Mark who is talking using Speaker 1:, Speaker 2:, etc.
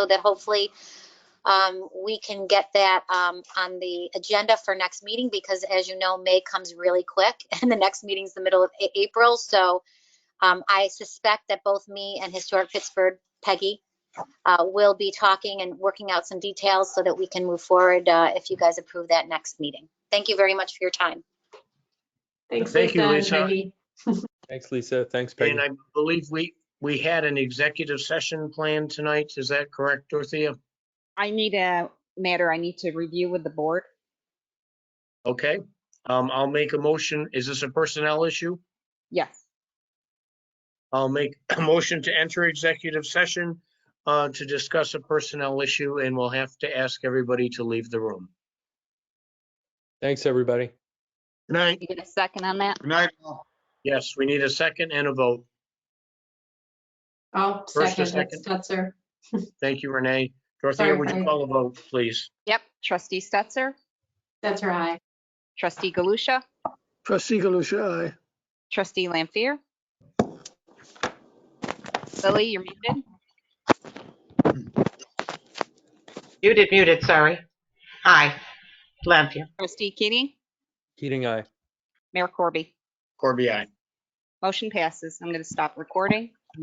Speaker 1: so that hopefully um, we can get that um, on the agenda for next meeting because as you know, May comes really quick and the next meeting's the middle of A- April. So um, I suspect that both me and Historic Pittsburgh, Peggy, uh, will be talking and working out some details so that we can move forward uh, if you guys approve that next meeting. Thank you very much for your time.
Speaker 2: Thanks,
Speaker 3: Thank you,
Speaker 2: Lisa and
Speaker 3: Lisa.
Speaker 2: Peggy.
Speaker 4: Thanks, Lisa. Thanks, Peggy.
Speaker 3: And I believe we, we had an executive session planned tonight. Is that correct, Dorothea?
Speaker 5: I need a matter I need to review with the board.
Speaker 3: Okay, um, I'll make a motion. Is this a personnel issue?
Speaker 5: Yes.
Speaker 3: I'll make a motion to enter executive session uh, to discuss a personnel issue and we'll have to ask everybody to leave the room.
Speaker 4: Thanks, everybody.
Speaker 3: Good Night.
Speaker 5: You get a second on that?
Speaker 6: Good night. all.
Speaker 3: Yes, we need a second and a vote.
Speaker 2: Oh,
Speaker 3: First
Speaker 2: second,
Speaker 3: or
Speaker 2: that's Stetser.
Speaker 3: Thank you, Renee. Dorothea, would you
Speaker 2: Sorry.
Speaker 3: call a vote, please?
Speaker 5: Yep. Trustee Stetser,
Speaker 2: That's her eye.
Speaker 5: trustee Galusha,
Speaker 7: Trustee Galusha, aye.
Speaker 5: trustee Lampier. Lily, you're muted.
Speaker 8: Muted, muted, sorry. Aye, Lampier.
Speaker 5: Trustee Keating,
Speaker 4: Keating, aye.
Speaker 5: Mayor Corby.
Speaker 3: Corby, aye.
Speaker 5: Motion passes. I'm going to stop recording.